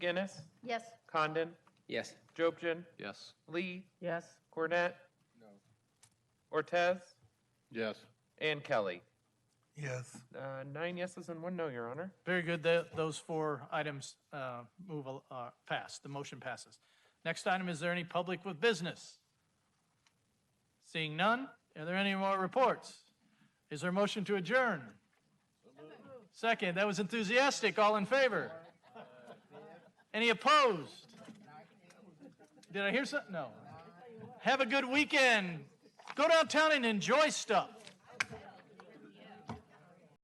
Guinness, Yes. Condon, Yes. Jobson, Yes. Lee, Yes. Cornett. Ortez Yes. and Kelly. Yes. Uh, Nine yeses and one no, Your Honor. Very good. Tho- Those four items uh, move, al- uh, pass. The motion passes. Next item, is there any public with business? Seeing none, are there any more reports? Is there a motion to adjourn? Second, that was enthusiastic. All in favor? Any opposed? Did I hear something? No. Have a good weekend. Go downtown and enjoy stuff.